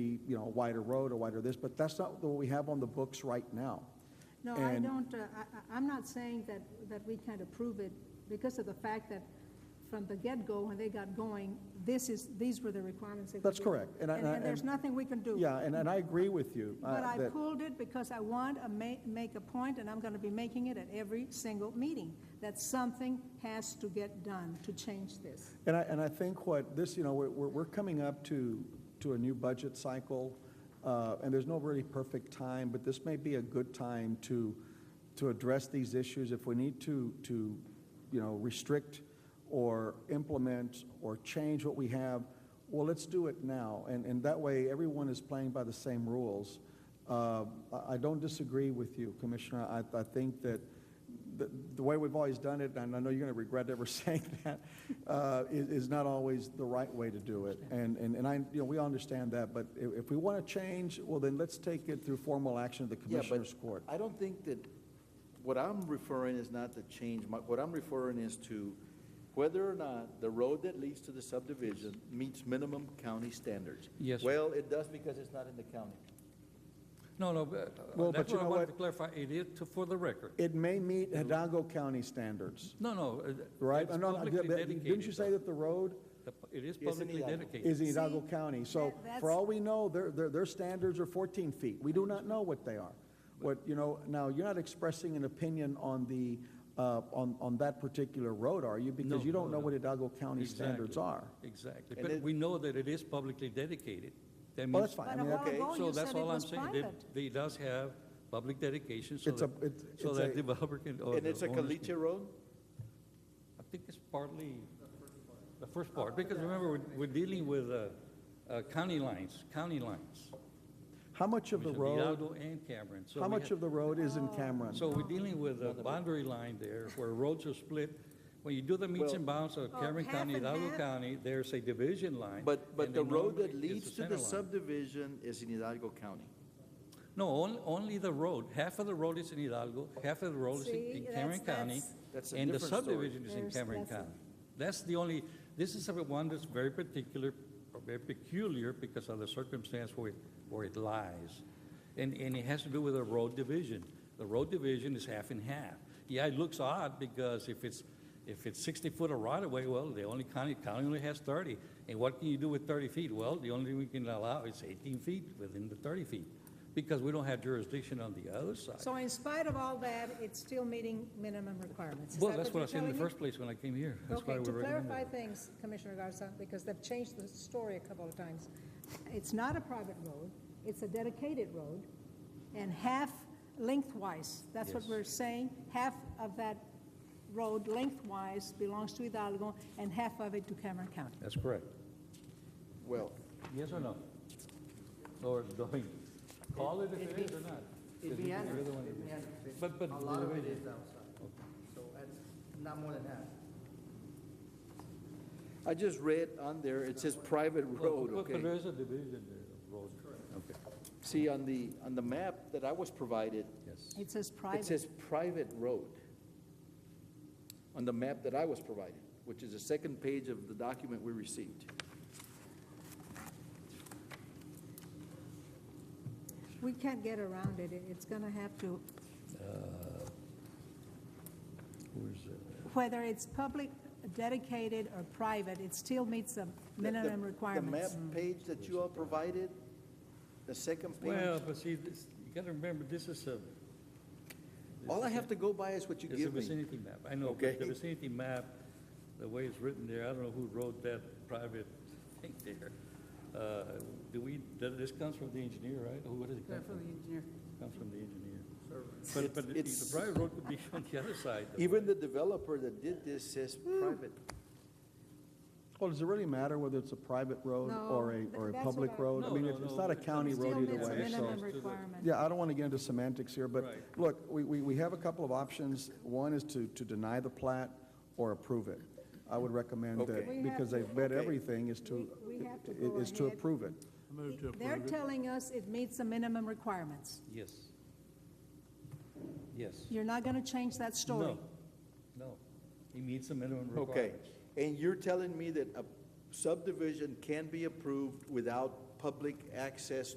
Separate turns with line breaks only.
be, you know, a wider road, a wider this, but that's not what we have on the books right now.
No, I
And-
don't, uh, I, I- I'm not saying that, that we can't approve it because of the fact that from the get-go, when they got going, this is, these were the requirements. they were
That's
given.
correct, and I-
And,
and I-
and there's
and-
nothing we can do.
Yeah, and, and I agree with you. uh,
But I
that-
pulled it because I want to ma- make a point, and I'm going to be making it at every single meeting, that something has to get done to change this.
And I, and I think what this, you know, we're, we're we're coming up to, to a new budget cycle, uh, and there's no really perfect time, but this may be a good time to, to address these issues. If we need to, to, you know, restrict or implement or change what we have, well, let's do it now. And, and that way, everyone is playing by the same rules. Uh, I, I don't disagree with you, Commissioner. I, I think that, the, the way we've always done it, and I know you're going to regret ever saying that, uh, is, is not always the right way to do it. And, and, and I, you know, we all understand that, but if, if we want to change, well, then let's take it through formal action of the
Yeah, but
Commissioners Court.
I don't think that, what I'm referring is not the change, My- what I'm referring is to whether or not the road that leads to the subdivision meets minimum county standards.
Yes, sir.
Well, it does because it's not in the county.
No, no, but, uh,
Well, but
that's
you
what I
know
wanted
what?
to clarify. It is to- for the record.
It may meet Hidalgo County standards,
No, no. uh,
right?
It's
And on-
publicly dedicated.
Didn't you say
though.
that the road
The- It is
Yes, in
publicly
Hidalgo.
dedicated.
is in Hidalgo
See,
County? So
that- that's-
for all we know, their, their, their standards are 14 feet. We do not know what they are. What, you know, now, you're not expressing an opinion on the, uh, on, on that particular road, are you? Because
No,
you don't
no,
know
no.
what Hidalgo County standards
Exactly.
are.
Exactly.
And
But
it-
we know that it is publicly dedicated. That
Well,
means-
that's fine. I
But a
mean,
while
okay.
ago,
So
you said
that's
it
all I'm
was
saying. It-
private.
They does have public dedication so
It's a-
that,
it's-
so
it's
that
a-
developer can. or
And
Oh, the
it's a
owners can-
caliche road?
I think it's partly the first part, because remember, we're- we're dealing with uh, uh, county lines, county lines.
How much of the
Commissioner
road,
Hidalgo and Cameron. So
how
we
much
have-
of the road is in Cameron?
So we're dealing with a boundary line there where roads are split. When you do the meets and bounds of
Oh,
Cameron
half
County,
and
Hidalgo
half?
County, there's a division line.
But, but
and
the
then
road that
normally it's
leads to
center
the
line.
subdivision is in Hidalgo County.
No, only, only the road. Half of the road is in Hidalgo, half of the road is in-
See,
in
that's-
Cameron County.
that's-
That's a
And the
different story.
subdivision is in
There's-
Cameron
that's a-
County. That's the only, this is a one that's very particular, or very peculiar because of the circumstance where, it- where it lies. And, and it has to do with a road division. The road division is half and half. Yeah, it looks odd because if it's, if it's sixty foot of right of way, well, the only county, county only has thirty. And what can you do with thirty feet? Well, the only thing we can allow is eighteen feet within the thirty feet because we don't have jurisdiction on the other side.
So in spite of all that, it's still meeting minimum requirements. Is
Well,
that
that's what I
you're
said in the
telling me?
first place when I came here. That's why
Okay,
we
to
recommended
clarify
it.
things, Commissioner Garza, because they've changed the story a couple of times. It's not a private road, it's a dedicated road, and half lengthwise, that's what
Yes.
we're saying, half of that road lengthwise belongs to Hidalgo and half of it to Cameron County.
That's correct.
Well,
Yes or no? Or don't, call it if it is or not?
It'd be
Because
answered,
you're the one that-
it'd be answered.
But- but-
A lot of it is outside, so that's not more than half.
I just read on there, it says private road,
But-
okay?
But there is a division there of road. Okay,
See, on the, on the map that I was provided,
yes.
It says
It
private,
says private road on the map that I was provided, which is the second page of the document we received.
we can't get around it, It- it's gonna have to,
Where's the-
whether it's public, dedicated, or private, it still meets the
The- the-
minimum requirements.
The map page that you all provided, the second
Well,
page,
but see, this, you gotta remember, this is a,
all I have to go by is what you
it's a
give me.
vicinity map. I know,
Okay.
but the vicinity map, the way it's written there, I don't know who wrote that private thing there. Uh, Do we, th- this comes from the engineer, right? Or what does it come from?
engineer.
Comes from the engineer.
It's-
But, but the- the
it's-
private road could be on the other side. though,
Even
right?
the developer that did this says private.
Well, does it really matter whether it's a private road
No,
or a,
th-
or a
that's
public
what I-
road? I
No,
mean,
no,
it's- it's
no,
not a
but-
county
It still
road either
meets a
way, so.
minimum
to the-
requirement.
Yeah, I don't want to get into semantics here, but
Right.
look, we, we, we have a couple of options. One is to, to deny the plat or approve it. I would recommend
Okay.
that,
We have
because
to-
they've bet
Okay.
everything is to,
We- we have to
i-
go
is to
ahead.
approve it.
They're telling us it meets the minimum requirements.
Yes. Yes.
You're not going to change that story.
No, no. He meets the minimum
Okay,
requirements.
and you're telling me that a subdivision can be approved without public access